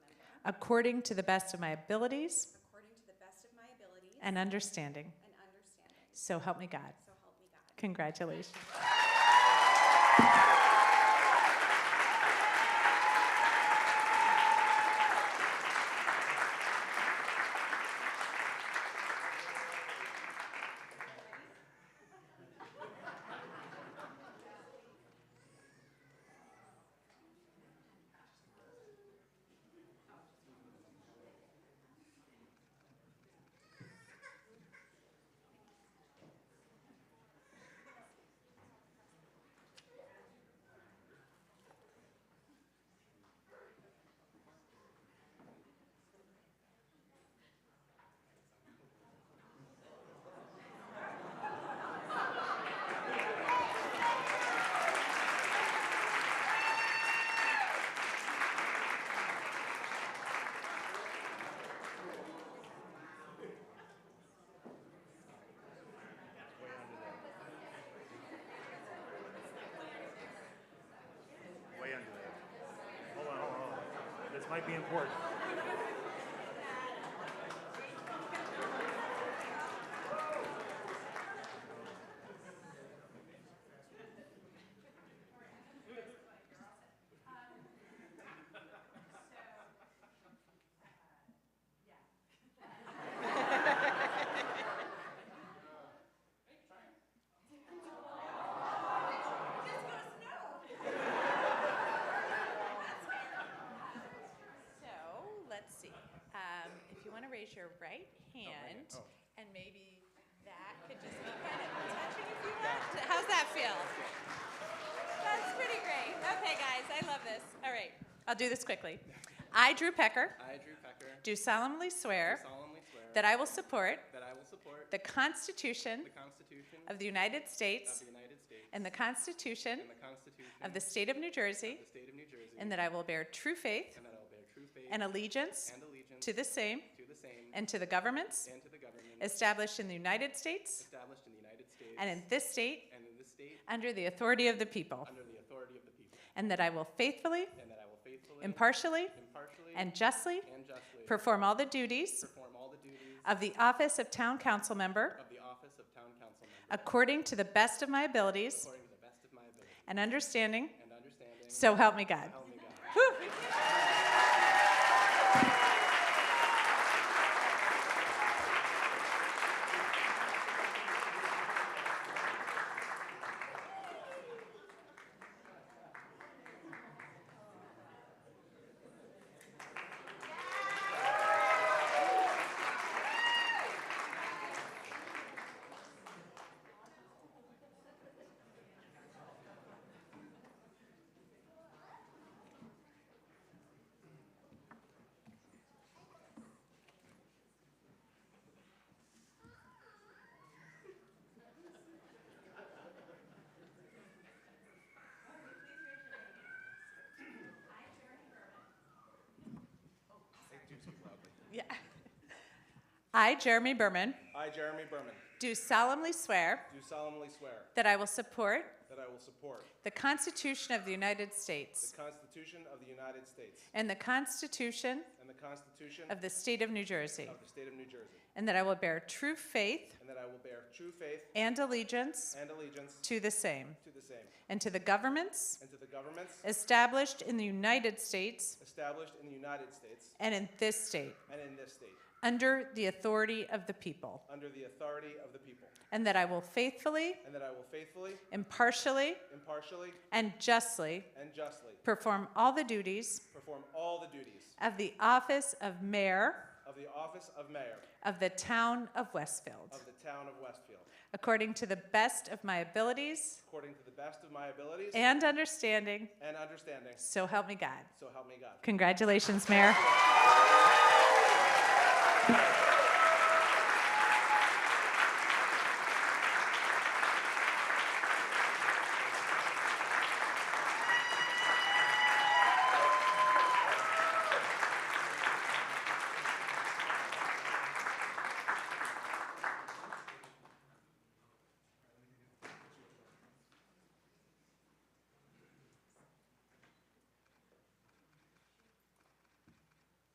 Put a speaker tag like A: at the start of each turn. A: according to the best of my abilities
B: according to the best of my abilities
A: and understanding.
B: and understanding.
A: So help me God.
B: So help me God.
A: Congratulations.
C: Way under there. Hold on, hold on, hold on. This might be important.
B: So, let's see. Um, If you want to raise your right hand, and maybe that could just be kind of touching if you want. How's that feel? That's pretty great. Okay, guys, I love this. All right, I'll do this quickly. I, Drew Pecker,
D: I, Drew Pecker, do
A: Do solemnly swear
D: solemnly swear
A: that I will support
D: that I will support
A: the Constitution
D: the Constitution
A: of the United
D: of
A: States
D: the United States
A: and the Constitution
D: and the Constitution
A: of the State of New Jersey,
D: of the State of New Jersey,
A: and that I will bear true faith
D: and that I will bear true faith
A: and allegiance
D: and allegiance
A: to the same
D: to the same
A: and to the governments
D: and to the government
A: established in the United States
D: established in the United States
A: and in this state
D: and in this state
A: under the authority of the people,
D: under the authority of the people,
A: and that I will faithfully,
D: and that I will faithfully,
A: impartially,
D: impartially,
A: and justly
D: and justly
A: perform all the duties
D: perform all the duties
A: of the office of town council member
D: of the office of town council member
A: according to the best of my abilities
D: according to the best of my ability
A: and understanding.
D: and understanding.
A: So help me God.
D: Help me God.
A: Whew. Yeah. I, Jeremy Berman,
D: I, Jeremy Berman,
A: do solemnly swear
D: do solemnly swear
A: that I will support
D: that I will support
A: the Constitution of the United
D: the
A: States
D: Constitution of the United States
A: and the Constitution
D: and the Constitution
A: of the State of New Jersey,
D: of the State of New Jersey,
A: and that I will bear true faith
D: and that I will bear true faith
A: and allegiance
D: and allegiance
A: to the same
D: to the same
A: and to the governments
D: and to the governments
A: established in the United States
D: established in the United States
A: and in this state
D: and in this state
A: under the authority of the people,
D: under the authority of the people,
A: and that I will faithfully,
D: and that I will faithfully,
A: impartially,
D: impartially,
A: and justly
D: and justly
A: perform all the duties
D: perform all the duties
A: of the office of mayor
D: of the office of mayor
A: of the town of Westfield,
D: of the town of Westfield,
A: according to the best of my abilities
D: according to the best of my abilities
A: and understanding,
D: and understanding.
A: so help me God.
D: So help me God.
A: Congratulations, Mayor.